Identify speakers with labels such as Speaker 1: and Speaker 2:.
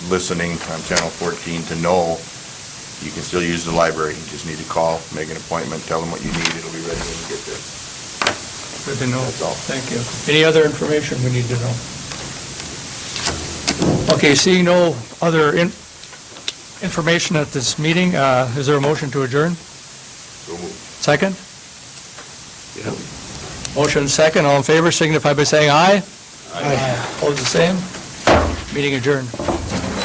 Speaker 1: listening on Channel 14 to know you can still use the library. You just need to call, make an appointment, tell them what you need, it'll be ready when you get there.
Speaker 2: Good to know.
Speaker 1: That's all.
Speaker 2: Thank you. Any other information we need to know? Okay, seeing no other in- information at this meeting, uh, is there a motion to adjourn?
Speaker 1: So moved.
Speaker 2: Second? Motion second, all in favor signify by saying aye. Aye. Opposed, the same? Meeting adjourned.